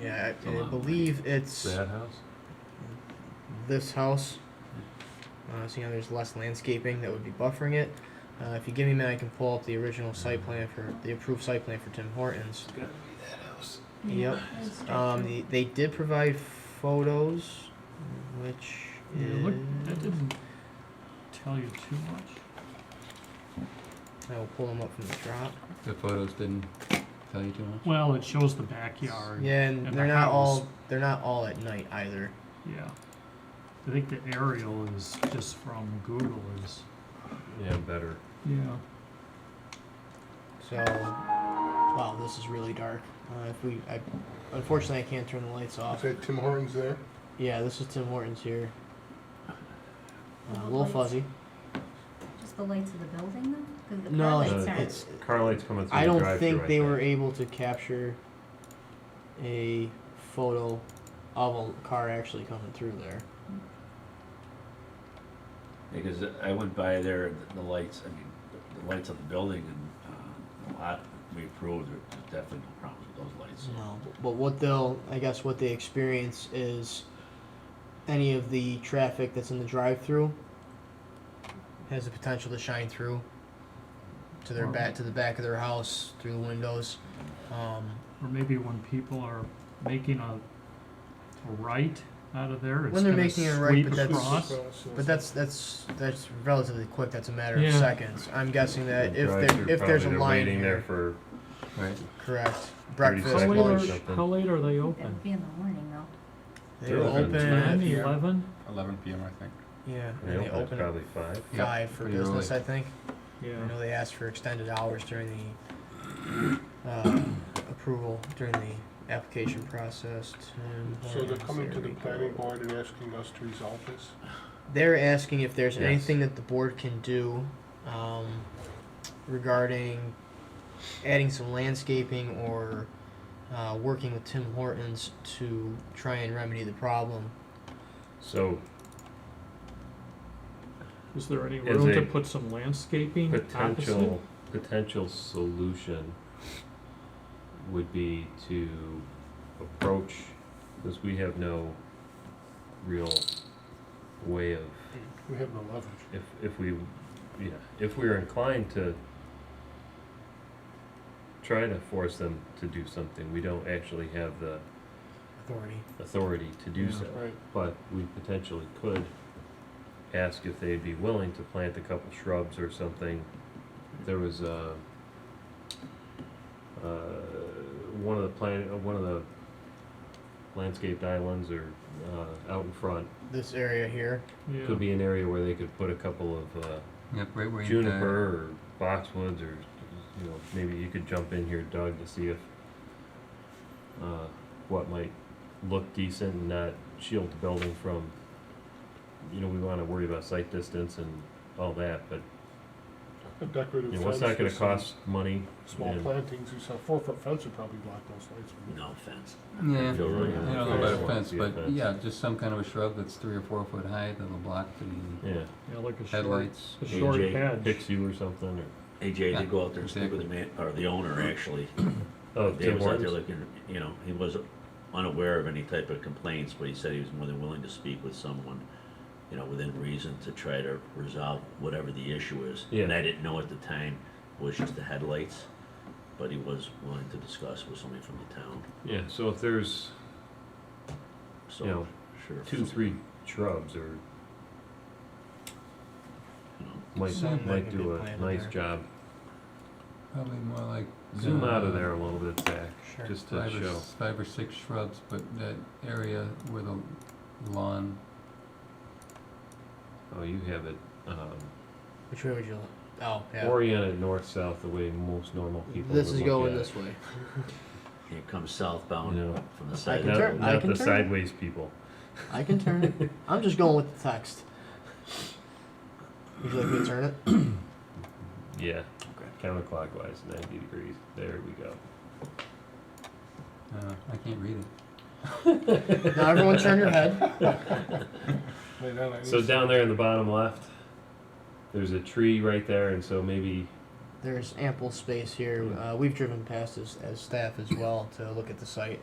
Yeah, I, It's a I lot. believe it's That house? this house. Uh, so you know, there's less landscaping that would be buffering it. Uh, if you give me a minute, I can pull up the original site plan for the approved site plan for Tim Hortons. It's gonna be that house. Yep. Um, the, they did provide photos, which Yeah, look, that is- didn't tell you too much. I will pull them up from the drop. The photos didn't tell you too much? Well, it shows the backyard. Yeah, and, And the they're not all house. they're not all at night either. Yeah. I think the aerial is just from Google is. Yeah, better. Yeah. So, wow, this is really dark. Uh, if we, I, unfortunately, I can't turn the lights Is off. that Tim Hortons there? Yeah, this is Tim Hortons here. Uh, a Little little lights. fuzzy. Just the lights of the building then? 'Cause the No, car it's, lights aren't- it's Car lights coming I don't think they were able to capture a photo of a car actually coming through there. Because I went by there, and the lights, I mean, the- the lights of the building and uh, the lot we approved, there- there's definitely no problems with those lights. No, but what they'll, I guess, what they experience is any of the traffic that's in the drive-through has the potential to shine through to their back to the back of their house through the windows. Um, Or maybe when people are making a, a right out of there, it's When they're gonna making a right, sweep but that's- across. but that's that's that's relatively quick. That's a matter of Yeah. seconds. I'm guessing that if there, if there's a line here, for. Right. correct, 30 breakfast, How Exactly. late, lunch, are, Something. how late are they That open? would be in the morning though. they They're open open Ten, at, Yeah. eleven? Eleven PM, I think. yeah, and they open at five. five for pretty business. early. I think. I know they asked for extended hours during the uh, approval, during the application process. to- So they're coming to the There we planning go. board and asking us to resolve this? They're asking if there's Yes. anything that the board can do um, regarding adding some landscaping or uh, working with Tim Hortons to try and remedy the problem. So Is there any Is room to a put some landscaping opposite? potential, potential solution would be to approach, because we have no real way of, We have no leverage. if, if we, yeah, if we are inclined to try to force them to do something, we don't actually have the Authority. authority to do Yeah. so. Right. But we potentially could ask if they'd be willing to plant a couple shrubs or something. There was a, uh, one of the plant, uh, one of the landscaped islands or, uh, out in front. This area here. Could Yeah, be an area where they could put a couple of, uh, Yep, right where you. juniper or boxwoods or, you know, maybe you could jump in here, Doug, to see if, uh, what might look decent and not shield the building from, you know, we wanna worry about sight distance and all that, but, A decorative you fence. know, what's not gonna with some cost money? Small and- plantings, you saw four-foot fence would probably block those lights. wouldn't it? No offense. uh, Yeah, I Feel really don't know about a uncomfortable. fence, Yeah, but fence. yeah, just some kind of a shrub that's three or four foot high that'll block the Yeah, yeah, like a short, headlights. a short AJ hedge. picks you or something, or, AJ Yeah, did go out there and speak with the man, or the owner actually. oh, They Tim was out there Hortons? looking, you know, he was unaware of any type of complaints, but he said he was more than willing to speak with someone, you know, within reason to try to resolve whatever the issue is. And Yeah. I didn't know at the time, it was just the headlights, but he was willing to discuss with somebody from the town, Yeah, so if there's so. You know, Sure. two, three shrubs or You know, might, Something might that could be do a planted nice there. job. Probably more like. Zoom uh, out of there a little bit, Zach, Sure. just to Five or, show. s- five or six shrubs, but that area where the lawn, Oh, you have it um, Which way would you? Oh, yeah. oriented north south the way most normal people. this would is look going at this way. Here comes southbound No. from the I It. side. can Not, turn- I not can the turn. sideways people. I can turn it. I'm just going with the text. Would you like me to turn it? Yeah. Okay. Counterclockwise, ninety degrees. There we go. uh, I can't read it. Now everyone turn your head. Lay down at So least- down there in the bottom left, there's a tree right there, and so maybe There's ample space here. Uh, we've driven past as, as staff as well to look at the site.